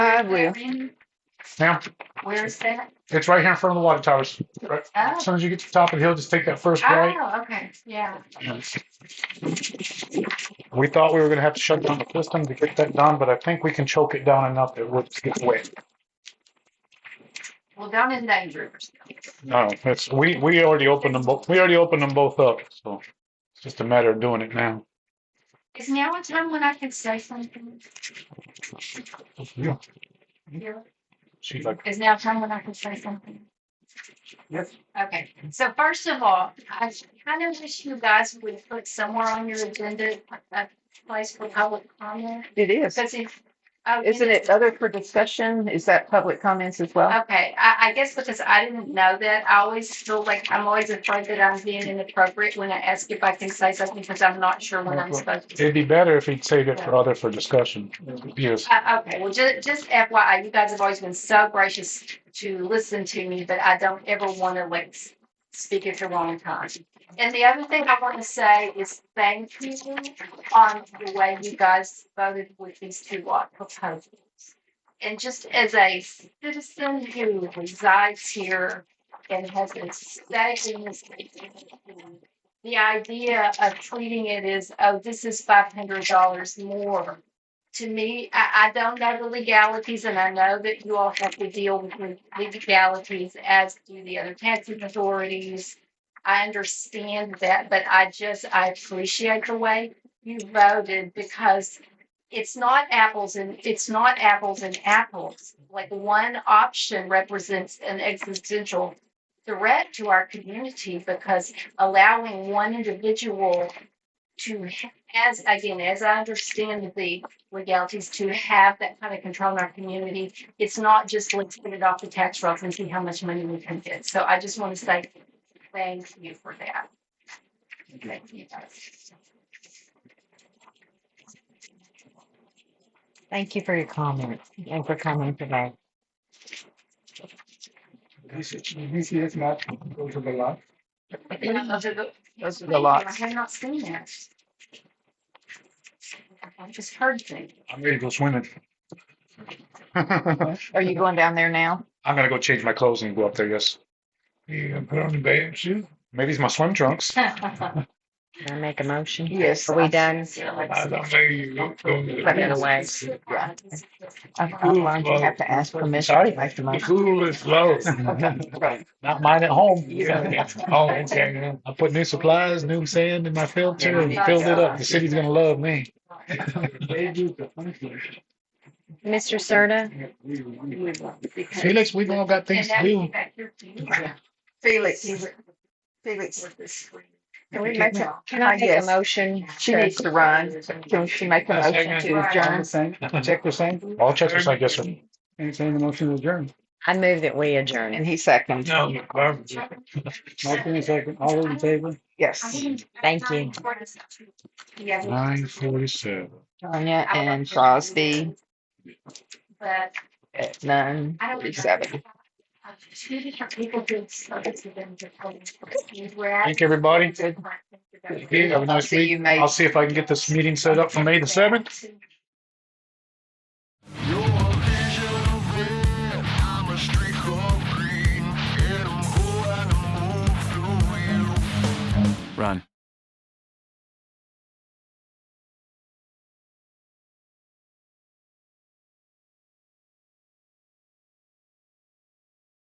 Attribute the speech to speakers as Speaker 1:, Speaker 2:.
Speaker 1: I will.
Speaker 2: Now,
Speaker 1: Where's that?
Speaker 2: it's right here in front of the water towers. Right. As
Speaker 1: Oh,
Speaker 2: soon as you get to the top of the hill, just take that first right.
Speaker 1: oh, okay, yeah.
Speaker 2: We thought we were gonna have to shut down the system to get that done, but I think we can choke it down enough that it would get wet.
Speaker 1: Well, down in danger.
Speaker 2: No, it's, we, we already opened them both, we already opened them both up, so it's just a matter of doing it now.
Speaker 1: Is now a time when I can say something?
Speaker 2: Yeah.
Speaker 1: Yeah.
Speaker 2: She's like,
Speaker 1: Is now a time when I can say something?
Speaker 2: Yes.
Speaker 1: Okay, so first of all, I kind of wish you guys would put somewhere on your agenda a place for public comment.
Speaker 3: It is.
Speaker 1: Because if. oh, you
Speaker 3: Isn't
Speaker 1: know-
Speaker 3: it other for discussion? Is that public comments as well?
Speaker 1: Okay, I, I guess because I didn't know that, I always feel like I'm always afraid that I'm being inappropriate when I ask if I can say something because I'm not sure when I'm supposed to.
Speaker 2: it'd be better if he'd save it for other for discussion. Yes,
Speaker 1: Uh, okay, well, ju- just FYI, you guys have always been so gracious to listen to me, but I don't ever want to like s- speak at the wrong time. And the other thing I want to say is thank you on the way you guys voted with these two lot proposals. And just as a citizen who resides here and has been staying in this community, the idea of treating it as, oh, this is five hundred dollars more to me, I, I don't know the legalities, and I know that you all have to deal with the legalities as do the other taxing authorities. I understand that, but I just, I appreciate the way you voted because it's not apples and, it's not apples and apples. Like one option represents an existential threat to our community because allowing one individual to, as, again, as I understand the legalities to have that kind of control in our community. It's not just let's put it off the tax rolls and see how much money we can get. So I just want to say thank you for that. Thank you guys.
Speaker 4: Thank you for your comment and for coming today.
Speaker 1: Those are the-
Speaker 3: Those are the lots.
Speaker 1: I have not seen that. I just heard things.
Speaker 2: I'm ready to go swimming. I'm
Speaker 3: Are you going down there now?
Speaker 2: gonna go change my clothes and go up there, yes.
Speaker 5: You gonna put on the bathing suit?
Speaker 2: Maybe it's my swim trunks.
Speaker 4: Can I make a motion?
Speaker 3: Yes.
Speaker 4: Are we done?
Speaker 5: I don't know you go go to
Speaker 4: Let me know
Speaker 5: the.
Speaker 4: when.
Speaker 3: I I learned you have to ask permission
Speaker 2: Sorry?
Speaker 3: to make the
Speaker 5: The
Speaker 3: motion.
Speaker 5: pool is low.
Speaker 2: Not mine at home.
Speaker 3: Yeah.
Speaker 5: Oh, okay.
Speaker 2: I put new supplies, new sand in my filter and filled it up. The city's gonna love me.
Speaker 4: Mr. Serta,
Speaker 2: Felix, we all got
Speaker 1: And
Speaker 2: things to
Speaker 1: that
Speaker 2: do.
Speaker 1: back here to you.
Speaker 3: Felix, Felix, can we make a,
Speaker 4: can I make a
Speaker 3: Yes.
Speaker 4: motion?
Speaker 3: she needs to run. Can she make a motion to adjourn?
Speaker 2: Check the same. All checks are signed, yes, sir.
Speaker 6: Entertain the motion to adjourn.
Speaker 4: I move that we
Speaker 3: And
Speaker 4: adjourn.
Speaker 3: he seconds.
Speaker 5: No, the garbage.
Speaker 6: Motion is second. All those in favor?
Speaker 3: Yes.
Speaker 4: Thank you.
Speaker 1: Yeah.
Speaker 2: Nine forty-seven.
Speaker 3: Tanya and Crosby
Speaker 1: But
Speaker 3: at nine
Speaker 1: I don't.
Speaker 3: forty-seven.
Speaker 1: Two different people did service events.
Speaker 2: Thank you, everybody.
Speaker 3: Good.
Speaker 2: Have a nice
Speaker 3: See
Speaker 2: week.
Speaker 3: you, mate.
Speaker 2: I'll see if I can get this meeting set up for May the seventh.